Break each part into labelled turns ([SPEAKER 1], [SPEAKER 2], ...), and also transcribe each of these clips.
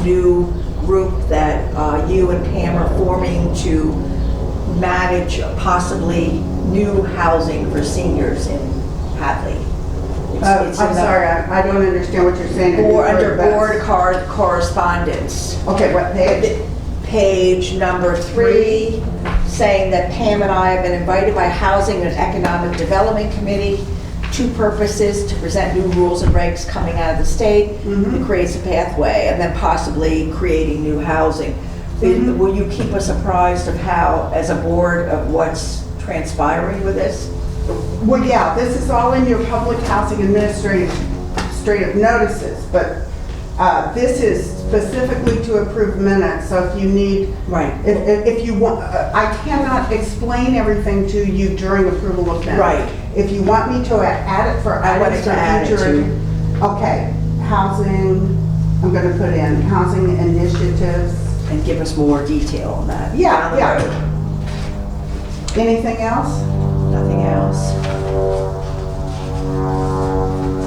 [SPEAKER 1] new group that uh, you and Pam are forming to manage possibly new housing for seniors in Hadley. It's-
[SPEAKER 2] Uh, I'm
[SPEAKER 1] it's in the-
[SPEAKER 2] sorry, I I don't understand what you're saying. I
[SPEAKER 1] Or
[SPEAKER 2] just
[SPEAKER 1] under
[SPEAKER 2] heard about-
[SPEAKER 1] board cor- correspondence.
[SPEAKER 2] Okay, what page?
[SPEAKER 1] Page number three, saying that Pam and I have been invited by Housing and Economic Development Committee, two purposes, to present new rules and regs coming out of the state, that creates a pathway, and then possibly creating new housing. Will will you keep us apprised of how, as a board, of what's transpiring with this?
[SPEAKER 2] Well, yeah, this is all in your public housing administrative administrative notices, but uh, this is specifically to approve minutes, so if you need,
[SPEAKER 1] Right.
[SPEAKER 2] if- if if you want, uh, I cannot explain everything to you during approval of minutes.
[SPEAKER 1] Right.
[SPEAKER 2] If you want me to a- add it for
[SPEAKER 1] I wanted
[SPEAKER 2] items
[SPEAKER 1] to
[SPEAKER 2] for
[SPEAKER 1] add it
[SPEAKER 2] future.
[SPEAKER 1] to-
[SPEAKER 2] Okay, housing, I'm going to put in housing initiatives.
[SPEAKER 1] And give us more detail on that.
[SPEAKER 2] Yeah,
[SPEAKER 1] down the
[SPEAKER 2] yeah.
[SPEAKER 1] road.
[SPEAKER 2] Anything else?
[SPEAKER 1] Nothing else.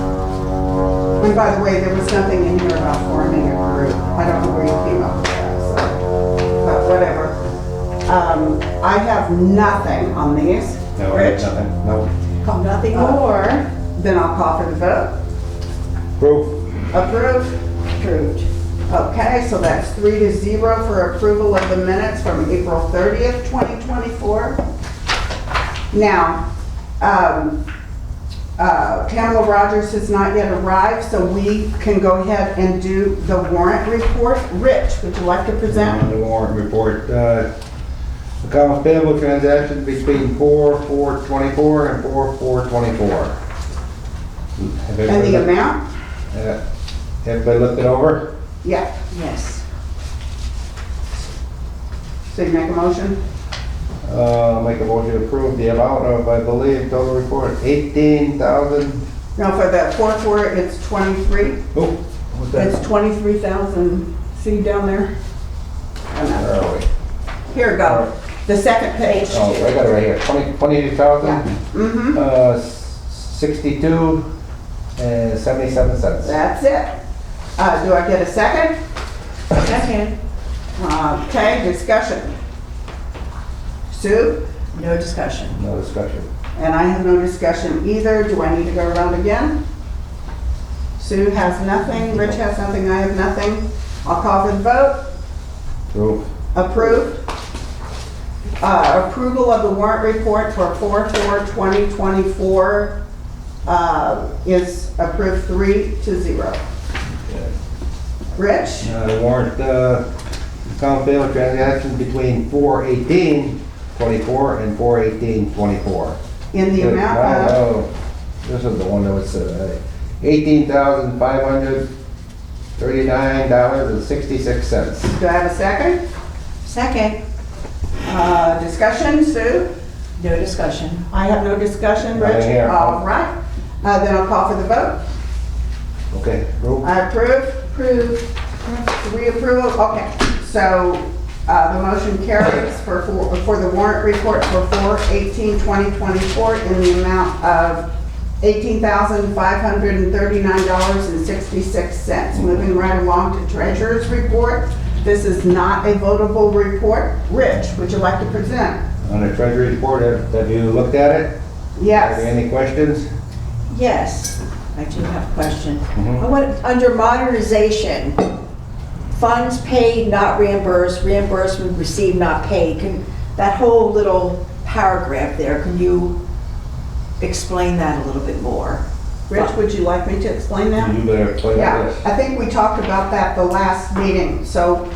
[SPEAKER 2] And by the way, there was nothing in here about forming a group. I don't know where you came up with that, so, but whatever. Um, I have nothing on these.
[SPEAKER 3] No,
[SPEAKER 2] Rich?
[SPEAKER 3] nothing, no.
[SPEAKER 1] Nothing more.
[SPEAKER 2] Or, then I'll call for the vote.
[SPEAKER 3] Proof?
[SPEAKER 2] Approve? Approved. Okay, so that's three to zero for approval of the minutes from April 30th, 2024. Now, um, uh, Pamela Rogers has not yet arrived, so we can go ahead and do the warrant report. Rich, would you like to
[SPEAKER 3] On
[SPEAKER 2] present?
[SPEAKER 3] the warrant report, uh, accounts payable transactions between four, four twenty-four and four, four twenty-four.
[SPEAKER 2] And the amount?
[SPEAKER 3] Everybody looked it over?
[SPEAKER 2] Yeah,
[SPEAKER 1] Yes.
[SPEAKER 2] so you make a motion?
[SPEAKER 3] Uh, make a motion to approve the amount of, I believe, total report, eighteen thousand,
[SPEAKER 2] No, for the fourth four, it's 23.
[SPEAKER 3] oh, what's that?
[SPEAKER 2] It's 23,000, see down there? Oh, no.
[SPEAKER 3] Where are we?
[SPEAKER 2] Here we go, the second page.
[SPEAKER 3] Oh, I got it right here, twenty, twenty-two thousand,
[SPEAKER 2] Mm-hmm,
[SPEAKER 3] uh, sixty-two and seventy-seven cents.
[SPEAKER 2] that's it. Uh, do I get a second? Uh,
[SPEAKER 1] Second.
[SPEAKER 2] Okay, discussion. Sue,
[SPEAKER 1] No discussion.
[SPEAKER 3] No discussion.
[SPEAKER 2] and I have no discussion either, do I need to go around again? Sue has nothing, Rich has nothing, I have nothing. I'll call for the vote,
[SPEAKER 3] Proof?
[SPEAKER 2] approved. Uh, approval of the warrant report for four four twenty twenty-four, uh, is approved three to zero. Rich?
[SPEAKER 3] Uh, warrant, uh, account bill transaction between four eighteen twenty-four and four eighteen twenty-four.
[SPEAKER 2] In the amount of,
[SPEAKER 3] This is the one that was, uh, eighteen thousand five hundred thirty-nine dollars and sixty-six cents.
[SPEAKER 2] do I have a second?
[SPEAKER 1] Second.
[SPEAKER 2] Uh, Discussion, Sue?
[SPEAKER 1] No discussion.
[SPEAKER 2] I have no discussion,
[SPEAKER 3] Nothing
[SPEAKER 2] Rich?
[SPEAKER 3] here.
[SPEAKER 2] All right, Uh, then I'll call for the vote.
[SPEAKER 3] Okay, proof?
[SPEAKER 2] I approve? Approve. Reapproval, okay. So uh, the motion carries for, for- for the warrant report for 4/18/2024 in the amount of $18,539.66. Moving right along to treasurer's report. This is not a votable report. Rich, would you like to present?
[SPEAKER 3] On the treasury report, have have you looked at it? Are there
[SPEAKER 2] Yes.
[SPEAKER 3] any questions?
[SPEAKER 1] Yes, I do have a question.
[SPEAKER 3] Mhm.
[SPEAKER 1] I want, under modernization, funds paid, not reimbursed, reimbursement received, not paid, can, that whole little paragraph there, can you explain that a little bit more?
[SPEAKER 2] Rich, would you like me to explain that?
[SPEAKER 3] You better explain
[SPEAKER 2] Yeah,
[SPEAKER 3] this.
[SPEAKER 2] I think we talked about that the last meeting. So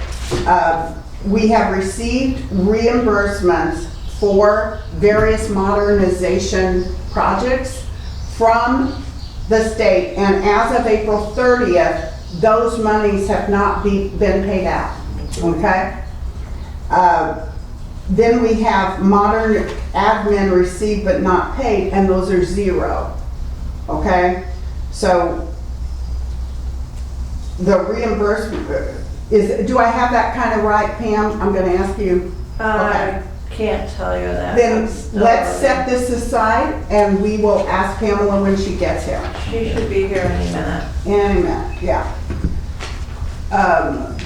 [SPEAKER 2] uh, we have received reimbursements for various modernization projects from the state. And as of April 30th, those monies have not be- been paid out, okay? Uh, Then we have modern admin received but not paid, and those are zero, okay? So the reimbursement, uh, is, do I have that kind of right, Pam? I'm gonna ask you.
[SPEAKER 4] I can't tell you that.
[SPEAKER 2] Then
[SPEAKER 4] I'm still-
[SPEAKER 2] let's set this aside and we will ask Pamela when she gets here.
[SPEAKER 4] She should be here any minute.
[SPEAKER 2] Any minute, yeah. Um,